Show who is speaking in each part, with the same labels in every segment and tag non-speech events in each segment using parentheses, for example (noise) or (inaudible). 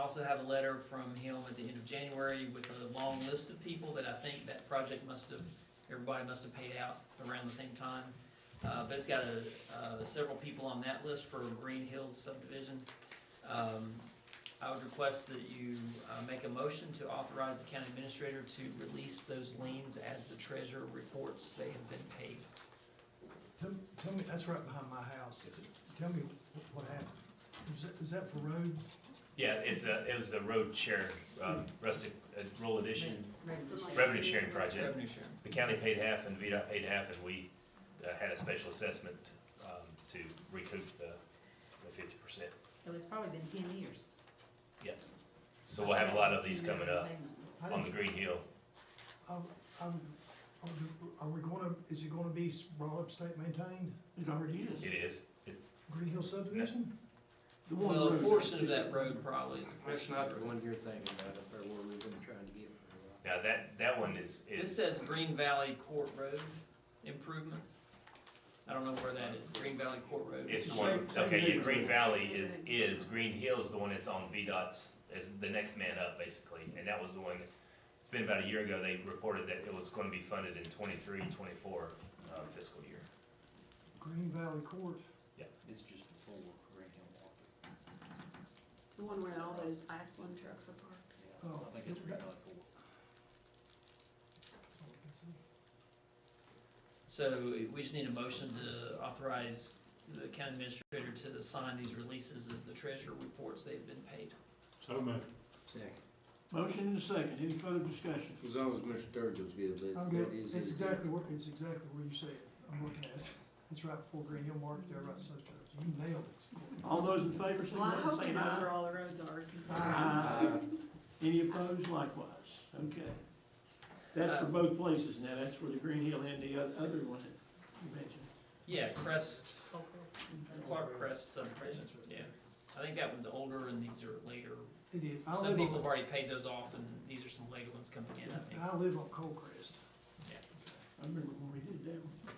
Speaker 1: also have a letter from him at the end of January with a long list of people that I think that project must have, everybody must have paid out around the same time. Uh, but it's got a, uh, several people on that list for Green Hills subdivision. Um, I would request that you, uh, make a motion to authorize the county administrator to release those liens as the treasurer reports they have been paid.
Speaker 2: Tell, tell me, that's right behind my house. Tell me wh- what happened. Is that, is that for road?
Speaker 3: Yeah, it's a, it was the road share, um, rustic, uh, rural addition, revenue sharing project.
Speaker 1: Revenue sharing.
Speaker 3: The county paid half and VDOT paid half, and we, uh, had a special assessment, um, to recoup the, the fifty percent.
Speaker 4: So it's probably been ten years.
Speaker 3: So we'll have a lot of these coming up
Speaker 2: How
Speaker 3: on the
Speaker 2: did-
Speaker 3: Green Hill.
Speaker 2: I, I, would- I would- are we gonna, is it gonna be s- brought up state maintained,
Speaker 5: It already is.
Speaker 3: It is.
Speaker 2: Green Hill subdivision?
Speaker 5: The one
Speaker 1: Well, a
Speaker 5: road.
Speaker 1: portion of that road probably is a
Speaker 6: That's
Speaker 1: portion of
Speaker 6: not the
Speaker 1: the road.
Speaker 6: one you're thinking about, up there where we've been trying to get for a while.
Speaker 3: Now, that, that one is,
Speaker 1: This
Speaker 3: is,
Speaker 1: says Green Valley Court Road improvement. I don't know where that is, Green Valley Court Road.
Speaker 3: it's the
Speaker 5: the
Speaker 3: one,
Speaker 5: same- same
Speaker 3: okay, yeah,
Speaker 5: neighborhood.
Speaker 3: Green Valley is, is, Green Hill's the one that's on VDOT's, is the next man up, basically. And that was the one, it's been about a year ago, they reported that it was gonna be funded in 23, 24 uh, fiscal year.
Speaker 2: Green Valley Court.
Speaker 6: It's just before Green Hill Walker.
Speaker 7: The one where all those Iceland trucks are parked.
Speaker 6: Yeah,
Speaker 5: Oh.
Speaker 6: I think it's Green Hill Walker.
Speaker 1: So we just need a motion to authorize the county administrator to sign these releases as the treasurer reports they've been paid.
Speaker 8: So moved.
Speaker 6: Second.
Speaker 5: Motion and a second, any further discussion?
Speaker 9: As long as Mr. Sturgill's good, that,
Speaker 2: I'm good.
Speaker 9: that is.
Speaker 2: It's
Speaker 9: it.
Speaker 2: exactly where, it's exactly where you said it. I'm looking at it. It's right before Green Hill Market, there, right south of, you nailed it.
Speaker 5: All those in favor,
Speaker 7: Well,
Speaker 5: signify by
Speaker 7: I hope Uh-huh. he
Speaker 5: saying
Speaker 7: knows where
Speaker 5: aye.
Speaker 7: all the roads are.
Speaker 5: Aye. Any opposed, likewise, okay.
Speaker 1: Uh,
Speaker 5: That's for both places now, that's for the Green Hill and the oth- other one that you mentioned.
Speaker 1: Yeah, Crest, Clark
Speaker 2: Road.
Speaker 1: Crest subdivision, yeah. I think that one's older and these are later.
Speaker 2: It is. I
Speaker 1: Some
Speaker 2: live
Speaker 1: people have
Speaker 2: on,
Speaker 1: already paid those off and these are some later ones coming in, I think.
Speaker 2: I live on Colcrest.
Speaker 5: I remember when we did that one.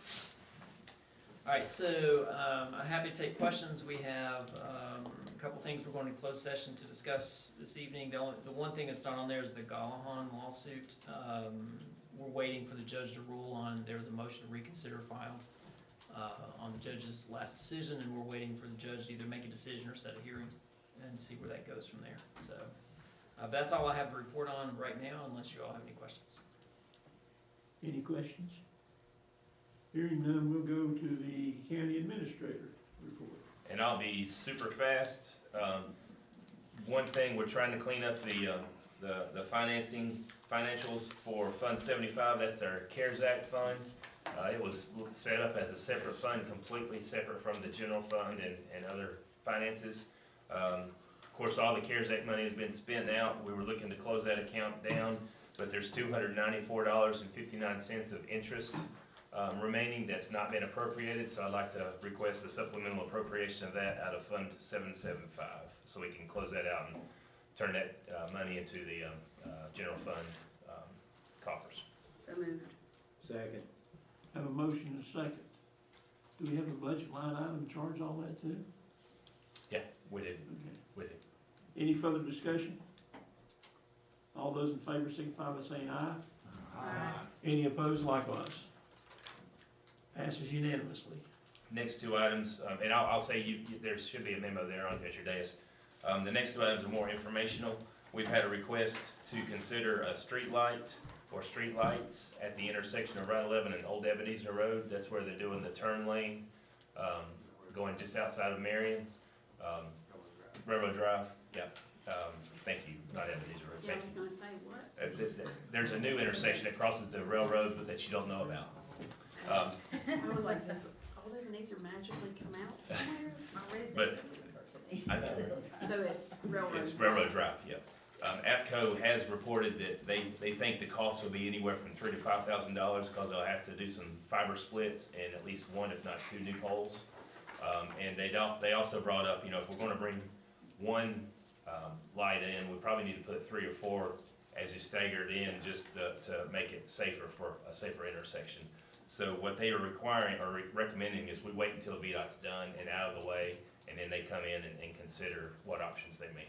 Speaker 1: All right, so um, I'm happy to take questions. We have um, a couple things we're going to close session to discuss this evening. The only, the one thing that's not on there is the Gallahan lawsuit. Um, We're waiting for the judge to rule on, there was a motion to reconsider filed uh, on the judge's last decision, and we're waiting for the judge to either make a decision or set a hearing and see where that goes from there. So uh, that's all I have to report on right now, unless you all have any questions.
Speaker 5: Any questions? Hearing none, we'll go to the county administrator report.
Speaker 3: and I'll be super fast. Um, one thing, we're trying to clean up the, um, the, the financing, financials for Fund seventy-five, that's our CARES Act fund. Uh, it was set up as a separate fund, completely separate from the general fund and, and other finances. Um, of course, all the CARES Act money has been spent out, we were looking to close that account down, but there's two hundred ninety-four dollars and fifty-nine cents of interest um, remaining that's not been appropriated, so I'd like to request a supplemental appropriation of that out of Fund seven seven five, so we can close that out and turn that, uh, money into the, um, uh, general fund, um, coffers.
Speaker 7: So moved.
Speaker 6: Second.
Speaker 5: Have a motion and a second. Do we have a budget line item charge all that too?
Speaker 3: Yeah, we did,
Speaker 5: Okay.
Speaker 3: we did.
Speaker 5: Any further discussion? All those in favor signify by saying aye.
Speaker 7: Aye.
Speaker 5: Any opposed likewise. Passes unanimously.
Speaker 3: Next two items, um, and I'll, I'll say you, you- there should be a memo there on, at your desk. Um, the next two items are more informational. We've had a request to consider a street light or street lights at the intersection of Route eleven and Old Ebenezer Road. That's where they're doing the turn lane, um, going just outside of Marion, um, Railroad Drive, yeah. Um, thank you, not Ebenezer Road,
Speaker 7: Yeah, I
Speaker 3: thank
Speaker 7: was
Speaker 3: you.
Speaker 7: gonna say, what?
Speaker 3: Uh, th- th- there's a new intersection that crosses the railroad, but that you don't know about. Um,
Speaker 7: I was like, does all their needs are magically come out somewhere?
Speaker 4: I read
Speaker 3: But-
Speaker 4: that. (laughs)
Speaker 3: I know.
Speaker 7: So it's railroad.
Speaker 3: It's Railroad Drive, yeah. Um, APCO has reported that they, they think the cost will be anywhere from three to five thousand dollars, cause they'll have to do some fiber splits and at least one, if not two, new poles. Um, and they don't, they also brought up, you know, if we're gonna bring one, um, light in, we probably need to put three or four as you staggered in, just to, to make it safer for, a safer intersection. So what they are requiring, or re- recommending is we wait until VDOT's done and out of the way, and then they come in and, and consider what options they may have.